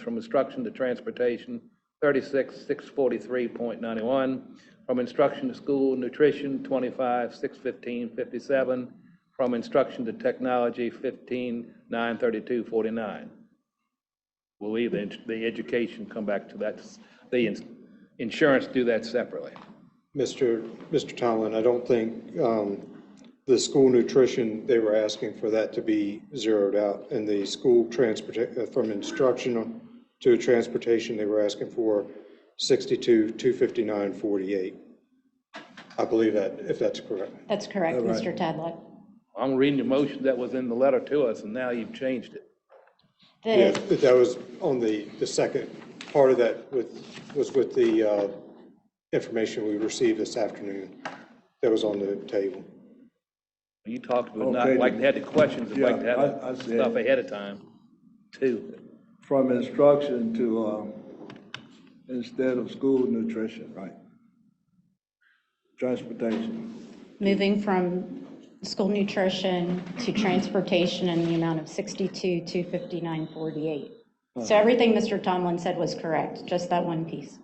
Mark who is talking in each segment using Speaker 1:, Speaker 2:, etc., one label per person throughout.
Speaker 1: from instruction to transportation, thirty-six, six forty-three point ninety-one. From instruction to school nutrition, twenty-five, six fifteen, fifty-seven. From instruction to technology, fifteen, nine thirty-two, forty-nine. We'll leave the, the education, come back to that, the ins- insurance, do that separately.
Speaker 2: Mr. Mr. Tomlin, I don't think um, the school nutrition, they were asking for that to be zeroed out. And the school transportation, from instructional to transportation, they were asking for 62, 259, 48. I believe that, if that's correct.
Speaker 3: That's correct, Mr. Tadlock.
Speaker 1: I'm reading the motion that was in the letter to us, and now you've changed it.
Speaker 2: Yeah,
Speaker 3: The,
Speaker 2: That was on the, the second part of that with, was with the uh, information we received this afternoon that was on the table.
Speaker 1: You talked about not
Speaker 4: Okay,
Speaker 1: like to have the questions, and like to
Speaker 4: yeah, I- I
Speaker 1: have the
Speaker 4: see.
Speaker 1: stuff ahead of time, too.
Speaker 4: From instruction to, um, instead of school nutrition, right? Transportation.
Speaker 3: moving from school nutrition to transportation in the amount of 62, 259, 48. So everything Mr. Tomlin said was correct, just that one piece.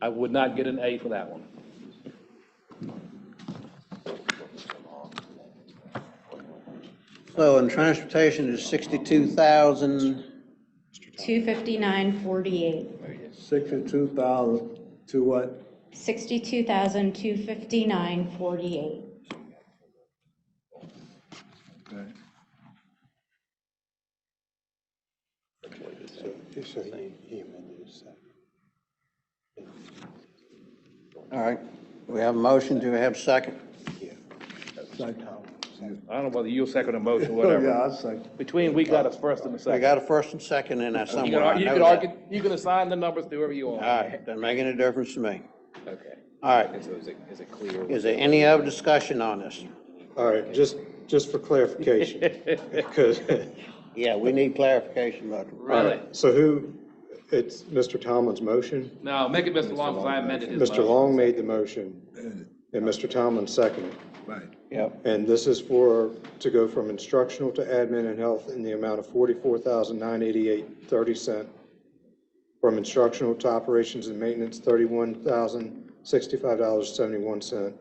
Speaker 1: I would not get an A for that one.
Speaker 5: So, and transportation is sixty-two thousand,
Speaker 3: 259, 48,
Speaker 4: Sixty-two thousand to what?
Speaker 3: 62,259, 48.
Speaker 4: Okay.
Speaker 2: So he- he amended his second.
Speaker 5: all right. We have a motion, do we have a second?
Speaker 4: Second.
Speaker 1: I don't know whether you'll second a motion,
Speaker 4: Oh, Yeah,
Speaker 1: whatever.
Speaker 4: I second.
Speaker 1: Between, we got a first and a
Speaker 5: We
Speaker 1: second.
Speaker 5: Oh, got a first and second in that
Speaker 1: You can
Speaker 5: somewhere, I
Speaker 1: ar- you
Speaker 5: know
Speaker 1: can
Speaker 5: that.
Speaker 1: argue, you can assign the numbers to whoever you want.
Speaker 5: All right, doesn't make any difference to me.
Speaker 1: Okay.
Speaker 5: All right,
Speaker 1: So is it, is it clear?
Speaker 5: is there any other discussion on this?
Speaker 2: All right, just, just for clarification, because,
Speaker 5: Yeah, we need clarification, but.
Speaker 1: Really?
Speaker 2: so who, it's Mr. Tomlin's motion?
Speaker 1: No, make it Mr. Long, because I amended his
Speaker 2: Mr.
Speaker 1: motion.
Speaker 2: Long made the motion, and Mr. Tomlin seconded.
Speaker 4: Right.
Speaker 5: Yep,
Speaker 2: And this is for, to go from instructional to admin and health in the amount of forty-four thousand nine eighty-eight thirty cent. From instructional to operations and maintenance, thirty-one thousand sixty-five dollars seventy-one cent.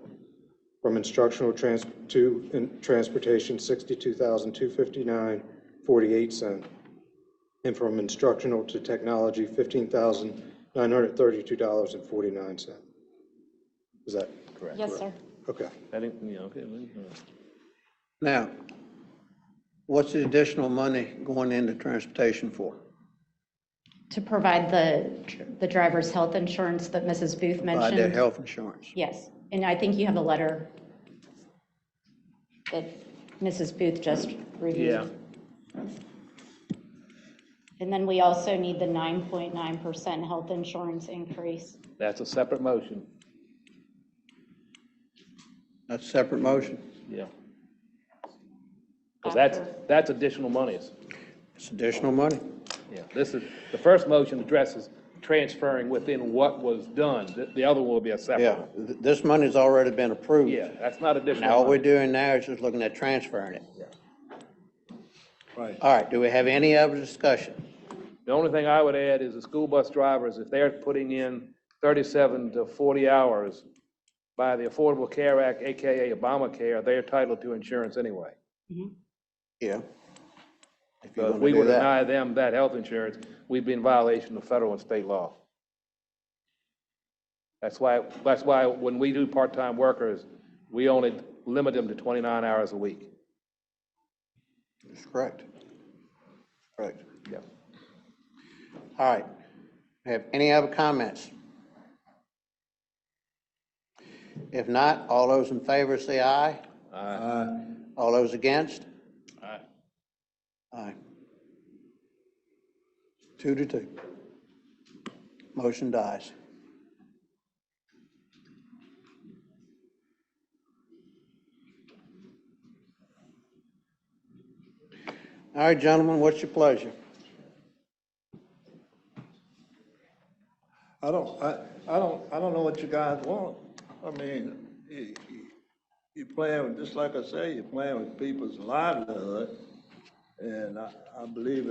Speaker 2: From instructional trans, to in- transportation, sixty-two thousand two fifty-nine forty-eight cent. And from instructional to technology, fifteen thousand nine hundred thirty-two dollars and forty-nine cent. Is that,
Speaker 3: Yes, sir.
Speaker 2: okay.
Speaker 1: I didn't, you know, okay, well, you know.
Speaker 5: now, what's the additional money going into transportation for?
Speaker 3: To provide the, the driver's health insurance that Mrs. Booth
Speaker 5: By their
Speaker 3: mentioned.
Speaker 5: health insurance?
Speaker 3: Yes, and I think you have a letter that Mrs. Booth just
Speaker 1: Yeah.
Speaker 3: reviewed. And then we also need the 9.9% health insurance increase.
Speaker 1: That's a separate motion.
Speaker 5: That's a separate motion,
Speaker 1: Yeah. Because that's,
Speaker 3: After-
Speaker 1: that's additional monies.
Speaker 5: it's additional money.
Speaker 1: Yeah, this is, the first motion addresses transferring within what was done. The- The other one will be a separate
Speaker 5: Yeah,
Speaker 1: one.
Speaker 5: th- this money's already been approved.
Speaker 1: Yeah, that's not
Speaker 5: Now, all
Speaker 1: additional.
Speaker 5: we're
Speaker 1: money.
Speaker 5: doing now is just looking at transferring it.
Speaker 4: Right.
Speaker 5: All right, do we have any other discussion?
Speaker 1: The only thing I would add is the school bus drivers, if they're putting in 37 to 40 hours by the Affordable Care Act, AKA Obamacare, they're entitled to insurance anyway.
Speaker 5: Yeah. If
Speaker 1: So
Speaker 5: you're
Speaker 1: if
Speaker 5: gonna
Speaker 1: we
Speaker 5: do
Speaker 1: were to
Speaker 5: that.
Speaker 1: deny them that health insurance, we'd be in violation of federal and state law. That's why, that's why when we do part-time workers, we only limit them to 29 hours a week.
Speaker 5: That's correct. Correct.
Speaker 1: Yeah.
Speaker 5: All right. Have any other comments? If not, all those in favor say aye.
Speaker 4: Uh,
Speaker 5: All those against?
Speaker 1: Aye.
Speaker 5: Aye. Two to two. Motion dies. All right, gentlemen, what's your pleasure?
Speaker 4: I don't, I, I don't, I don't know what you guys want. I mean, you, you- you playing with, just like I say, you're playing with people's livelihood. And I, I believe